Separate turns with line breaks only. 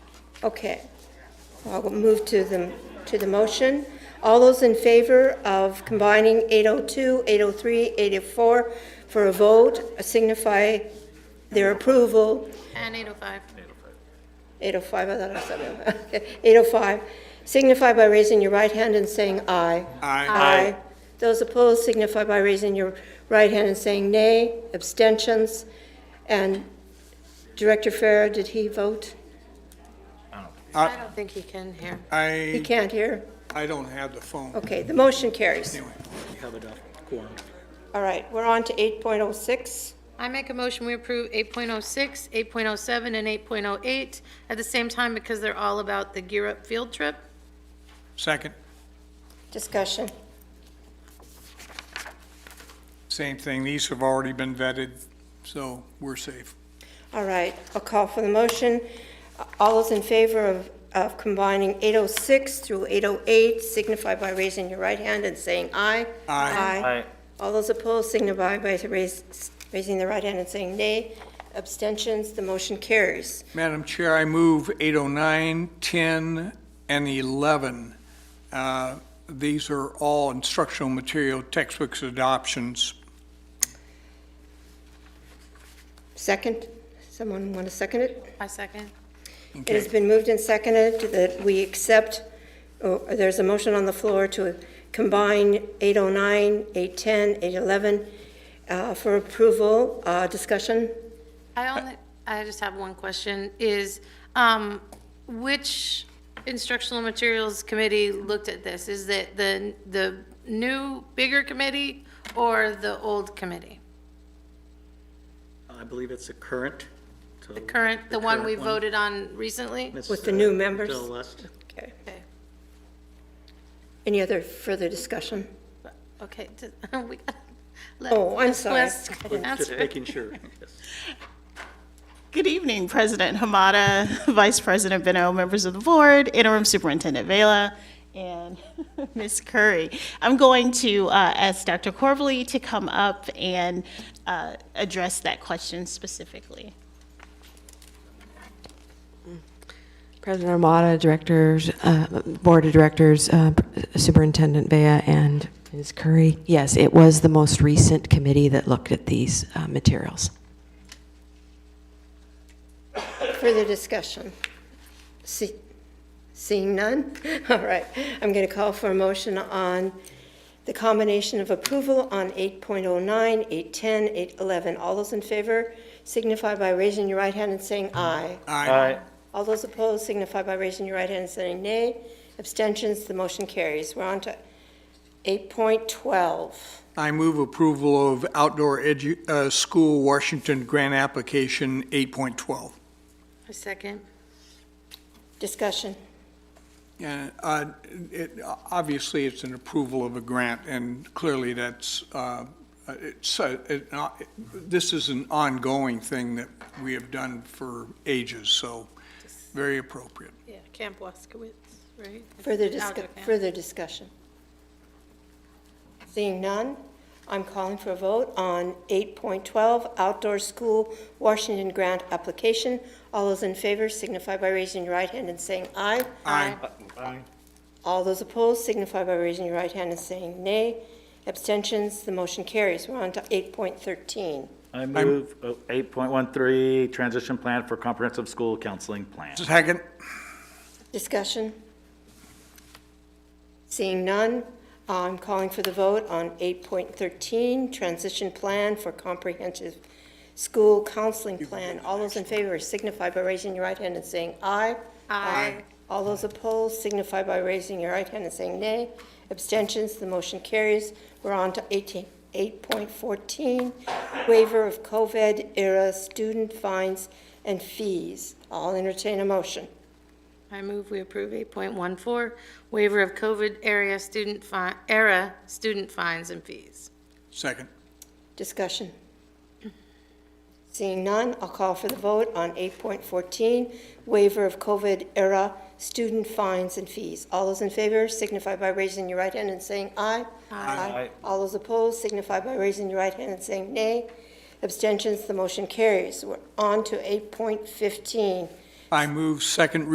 Okay. I'll move to the, to the motion. All those in favor of combining 802, 803, 804 for a vote uh, signify their approval.
And 805.
805, I thought I said it. Okay, 805. Signify by raising your right hand and saying aye. Aye. Those opposed signify by raising your right hand and saying nay. Abstentions. And Director Farrar, did he vote?
I don't think he can hear.
He
I,
can't Oh. hear?
I don't have the phone.
Okay, the motion carries.
Anyway,
have enough quorum.
All right, we're on to 8.06.
I make a motion, we approve 8.06, 8.07, and 8.08 at the same time because they're all about the Gear Up field trip.
second,
Discussion.
same thing. These have already been vetted, so we're safe.
All right, I'll call for the motion. All those in favor of, of combining 806 through 808 signify by raising your right hand and saying aye.
Aye.
Aye. All those opposed signify by raise- raising the right hand and saying nay. Abstentions, the motion carries.
Madam Chair, I move 809, 10, and 11. Uh, These are all instructional material textbooks adoptions.
Second? Someone want to second it?
I second.
It has
Okay.
been moved and seconded that we accept, oh, there's a motion on the floor to combine 809, 810, 811 uh, for approval. Uh, Discussion?
I only, I just have one question, is, um, which instructional materials committee looked at this? Is it the, the new, bigger committee or the old committee?
I believe it's the current. so-
The current, the one we
current
voted on recently?
Miss,
With the
uh,
new members?
Del West.
Okay.
Okay.
Any other further discussion?
Okay, d- we got.
Oh, I'm sorry.
Just making sure. Yes.
Good evening, President Hamada, Vice President Beno, members of the board, Interim Superintendent Vela, and Ms. Curry. I'm going to uh, ask Dr. Corbley to come up and uh, address that question specifically.
President Armada, directors, uh, board of directors, uh, Superintendent Vea, and Ms. Curry. Yes, it was the most recent committee that looked at these uh, materials.
Further discussion? See- Seeing none? All right, I'm going to call for a motion on the combination of approval on 8.09, 810, 811. All those in favor signify by raising your right hand and saying aye.
Aye.
All those opposed signify by raising your right hand and saying nay. Abstentions, the motion carries. We're on to 8.12.
I move approval of outdoor edu, uh, school Washington grant application 8.12.
A second.
Discussion.
Yeah, uh, it- Obviously, it's an approval of a grant, and clearly that's, uh, it's, uh, it- uh, this is an ongoing thing that we have done for ages, so very appropriate.
Yeah, Camp Waskowitz, right?
Further
Outdoor
discu,
camp.
further discussion. Seeing none, I'm calling for a vote on 8.12 Outdoor School Washington Grant Application. All those in favor signify by raising your right hand and saying aye.
Aye.
All those opposed signify by raising your right hand and saying nay. Abstentions, the motion carries. We're on to 8.13.
I move oh, 8.13, transition plan for comprehensive school counseling plan.
Second?
Discussion? Seeing none, I'm calling for the vote on 8.13, Transition Plan for Comprehensive School Counseling Plan. All those in favor signify by raising your right hand and saying aye. Aye. All those opposed signify by raising your right hand and saying nay. Abstentions, the motion carries. We're on to 18 8.14, Waiver of COVID-era Student Fines and Fees. I'll entertain a motion.
I move we approve 8.14, waiver of COVID area student fi, era student fines and fees.
Second.
Discussion. Seeing none, I'll call for the vote on 8.14, waiver of COVID-era student fines and fees. All those in favor signify by raising your right hand and saying aye. Aye. All those opposed signify by raising your right hand and saying nay. Abstentions, the motion carries. We're on to 8.15.
I move second